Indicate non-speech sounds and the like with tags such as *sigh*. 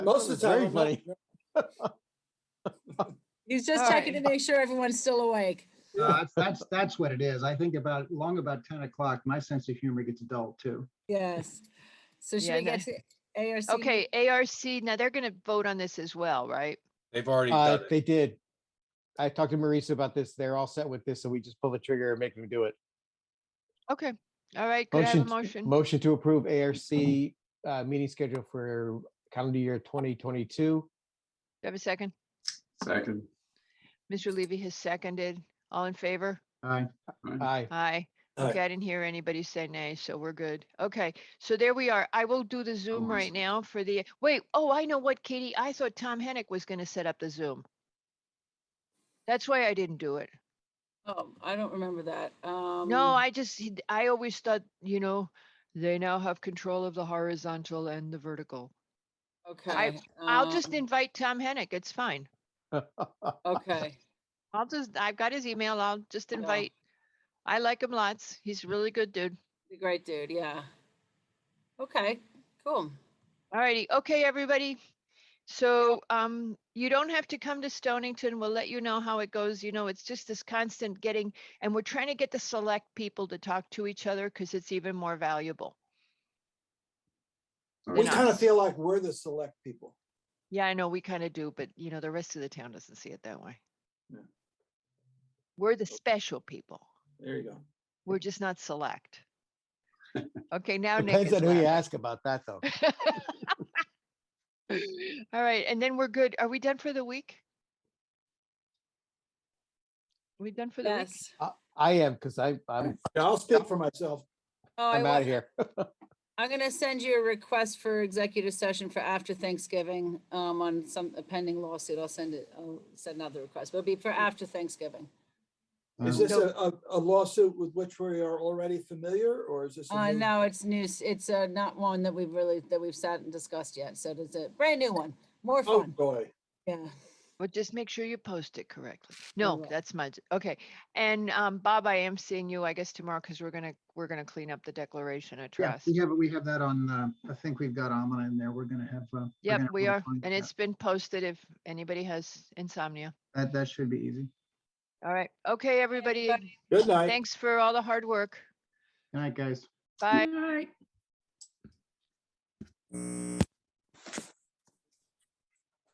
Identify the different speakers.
Speaker 1: Most of the
Speaker 2: Very
Speaker 1: time. I'm not-
Speaker 3: He's just
Speaker 4: All
Speaker 3: checking to
Speaker 4: right.
Speaker 3: make sure everyone's still awake.
Speaker 5: No, That's, that's, that's what it is. I think about, long about 10 o'clock, my sense of humor gets dull too.
Speaker 3: Yes. So should
Speaker 4: Yeah,
Speaker 3: we get to ARC?
Speaker 4: Okay, ARC, now they're gonna vote on this as well, right?
Speaker 6: They've already
Speaker 2: Uh,
Speaker 6: done it.
Speaker 2: they did. I talked to Marisa about this. They're all set with this, so we just pull the trigger and make them do it.
Speaker 4: Okay, all right, could I have a motion?
Speaker 2: Motion to approve ARC, uh, meeting schedule for calendar year twenty twenty-two.
Speaker 4: Do I have a second?
Speaker 7: Second.
Speaker 4: Mr. Levy has seconded. All in favor?
Speaker 5: Aye.
Speaker 1: Uh,
Speaker 2: Aye.
Speaker 4: Aye.
Speaker 1: Aye.
Speaker 4: Okay, I didn't hear anybody say nay, so we're good. Okay, so there we are. I will do the Zoom
Speaker 7: I
Speaker 4: right
Speaker 7: see.
Speaker 4: now for the, wait, oh, I know what, Katie, I thought Tom Hennick was gonna set up the Zoom. That's why I didn't do it.
Speaker 3: Oh, I don't remember that. Um,
Speaker 4: No, I just, he- I always thought, you know, they now have control of the horizontal and the vertical.
Speaker 3: Okay. um,
Speaker 4: I'll just invite Tom Hennick. It's fine.
Speaker 3: Okay.
Speaker 4: I'll just, I've got his email. I'll just
Speaker 3: Yeah.
Speaker 4: invite. I like him lots. He's a really good dude.
Speaker 3: Great dude, yeah. Okay, cool.
Speaker 4: Alrighty, okay, everybody. So, um, you don't have to come to Stonington. We'll let you know how it goes. You know, it's just this constant getting, and we're trying to get the select people to talk to each other because it's even more valuable.
Speaker 1: We
Speaker 4: not.
Speaker 1: kind of feel like we're the select people.
Speaker 4: Yeah, I know, we kind of do, but you know, the rest of the town doesn't see it that way.
Speaker 1: No.
Speaker 4: We're the special people.
Speaker 1: There you go.
Speaker 4: We're just not select. Okay, now Nick
Speaker 2: Depends
Speaker 4: is
Speaker 2: on who you
Speaker 4: laughing.
Speaker 2: ask about that, though.
Speaker 4: *laughs* All right, and then we're good. Are we done for the week? We done for the week?
Speaker 3: Yes.
Speaker 2: I- I am, because I, I'm,
Speaker 1: Yeah, I'll speak for myself.
Speaker 3: Oh, I
Speaker 2: I'm out
Speaker 3: wa-
Speaker 2: of here.
Speaker 3: I'm gonna send you a request for executive session for after Thanksgiving, um, on some a pending lawsuit. I'll send it, I'll send another request, but it'll be for after Thanksgiving.
Speaker 1: Is
Speaker 2: Mm.
Speaker 5: Um,
Speaker 1: this a, a- a lawsuit with which we are already familiar or is this? a
Speaker 3: Uh,
Speaker 1: new-
Speaker 3: no, it's news. It's, uh, not one that we've really, that we've sat and discussed yet. So it's a brand new one, more
Speaker 1: Oh,
Speaker 3: fun.
Speaker 1: boy.
Speaker 3: Yeah.
Speaker 4: But just make sure you post it correctly. No,
Speaker 3: will.
Speaker 4: that's my, okay. And um, Bob, I am seeing you, I guess tomorrow, because we're gonna, we're gonna clean up the declaration of
Speaker 5: Yeah,
Speaker 4: trust.
Speaker 5: we have, we have that on, uh, I think we've got Almond in there. We're going to have. uh, we're
Speaker 4: Yep,
Speaker 5: gonna have
Speaker 4: we
Speaker 5: a
Speaker 4: are,
Speaker 5: fun-
Speaker 4: and it's been posted if anybody has insomnia.
Speaker 5: That, that should be easy.
Speaker 4: All right, okay, everybody,
Speaker 1: Good night.
Speaker 4: thanks for all the hard work.
Speaker 5: Good night, guys.
Speaker 4: Bye.
Speaker 7: Aye.